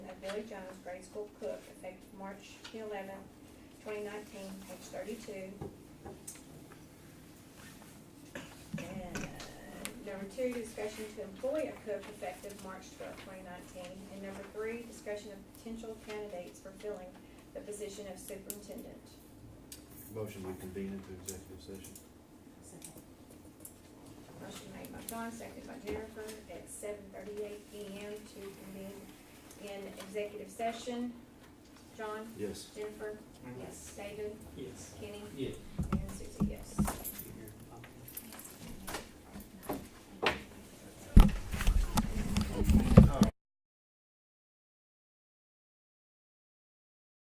Billy Jones, grade school cook, effective March the eleventh, twenty nineteen, page thirty-two. And number two, discussion to employ a cook effective March twelfth, twenty nineteen. And number three, discussion of potential candidates for filling the position of superintendent. Motion to convene into executive session. Motion made by Dawn, seconded by Jennifer at seven thirty-eight PM to convene in executive session. John, Yes. Jennifer, Yes. David, Yes. Kenny, Yes.